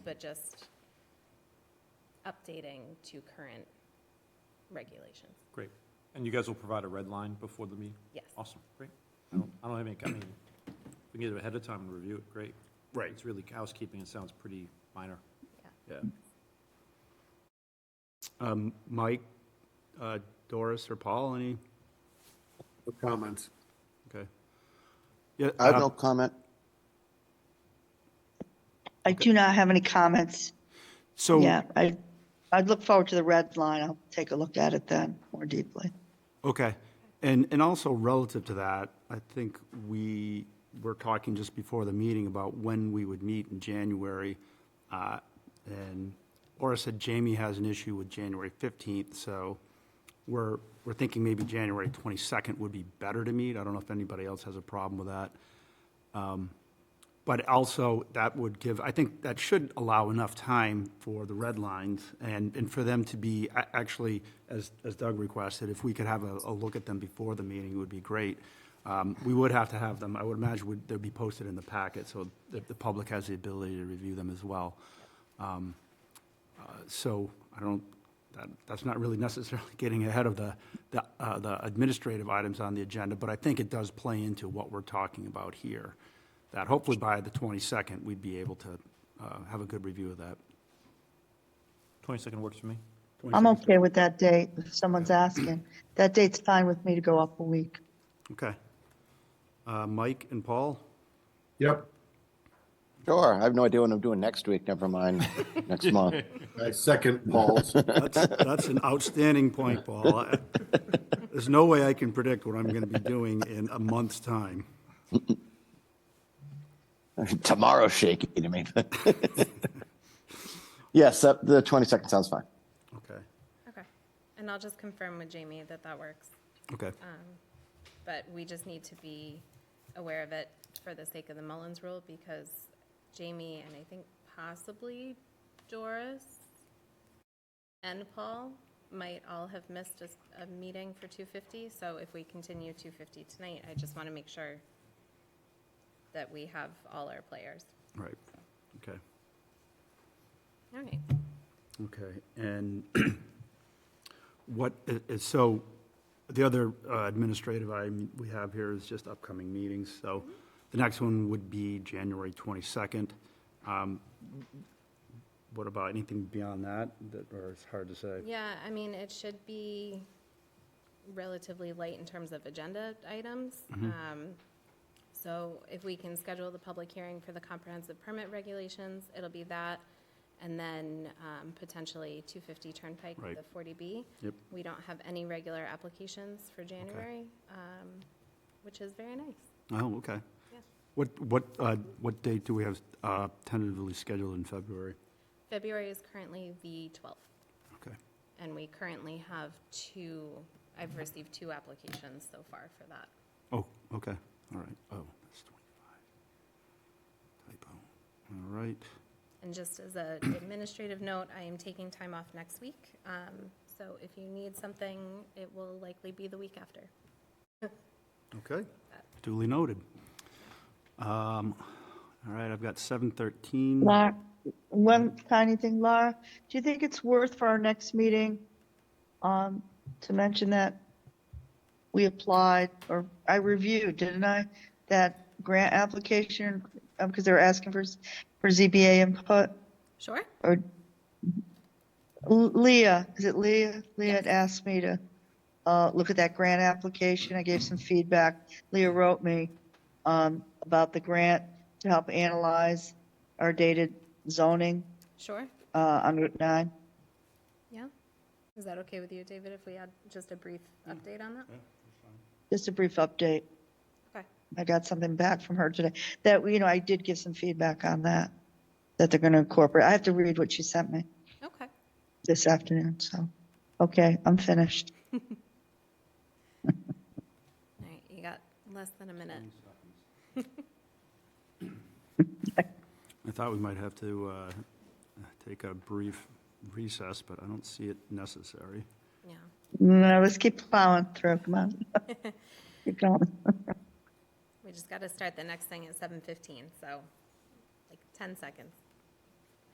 but just updating to current regulations. Great. And you guys will provide a red line before the meeting? Yes. Awesome, great. I don't, I don't have any, I mean, we can get it ahead of time and review it, great. Right. It's really housekeeping, it sounds pretty minor. Um, Mike, uh, Doris, or Paul, any? No comments. Okay. Yeah, I have uh, no comment. I do not have any comments. So. Yeah, I, I'd look forward to the red line. I'll take a look at it then more deeply. Okay. And, and also relative to that, I think we were talking just before the meeting about when we would meet in January. uh, And Laura said Jamie has an issue with January 15th, so we're, we're thinking maybe January 22nd would be better to meet. I don't know if anybody else has a problem with that. But also, that would give, I think that should allow enough time for the red lines and, and for them to be, a- actually, as, as Doug requested, if we could have a, a look at them before the meeting, it would be great. Um, We would have to have them, I would imagine, would, they'd be posted in the packet, so the, the public has the ability to review them as well. Um, uh, So I don't, that, that's not really necessarily getting ahead of the, the, uh, the administrative items on the agenda, but I think it does play into what we're talking about here. That hopefully by the twenty-second, we'd be able to, uh, have a good review of that. Twenty-second works for me. I'm okay with that date, if someone's asking. That date's fine with me to go up a week. Okay. Uh, Mike and Paul? Yep. Sure, I have no idea what I'm doing next week, never mind next month. I second Paul's. That's, that's an outstanding point, Paul. I- There's no way I can predict what I'm gonna be doing in a month's time. Tomorrow's shaky to me. Yes, that- the 22nd sounds fine. Okay, Okay. And I'll just confirm with Jamie that that works, okay. but we just need to be aware of it for the sake of the Mullins rule because Jamie and I think possibly Doris and Paul might all have missed a, s- a meeting for 250. So if we continue 250 tonight, I just want to make sure that we have all our players. Right, okay. All right. Okay, and what, i- is- so, the other uh, administrative item we have here is just upcoming meetings, so the next one would be January 22nd. Um, What about anything beyond that, that, or it's hard to say? Yeah, I mean, it should be relatively light in terms of agenda items. Mm-hmm. Um, So if we can schedule the public hearing for the comprehensive permit regulations, it'll be that. And then um, potentially 250 Turnpike, Right. the 40B. Yep. We don't have any regular applications for January, um, which is very nice. Oh, okay. Yeah. What, what, uh, what date do we have uh, tentatively scheduled in February? February is currently the 12th. Okay, And we currently have two, I've received two applications so far for that. oh, okay, all right, oh, that's 25. Typo, all right. And just as an administrative note, I am taking time off next week. Um, So if you need something, it will likely be the week after. Okay, duly noted. Um, All right, I've got 7:13. Laura, one tiny thing, Laura, do you think it's worth for our next meeting, um, to mention that we applied, or I reviewed, didn't I, that grant application, um, because they were asking for, s- for ZBA input? Sure? or Leah, is it Leah? Leah had asked me to uh, look at that grant application. I gave some feedback. Leah wrote me um, about the grant to help analyze our dated zoning Sure? uh, on Route 9. Yeah? Is that okay with you, David, if we add just a brief update on that? Just a brief update. Okay. I got something back from her today that, you know, I did give some feedback on that, that they're going to incorporate. I have to read what she sent me Okay. this afternoon, so, okay, I'm finished. All right, you got less than a minute. I thought we might have to uh, take a brief recess, but I don't see it necessary. Yeah. No, let's keep plowing through. Come on. keep going. We just got to start the next thing at 7:15, so like 10 seconds.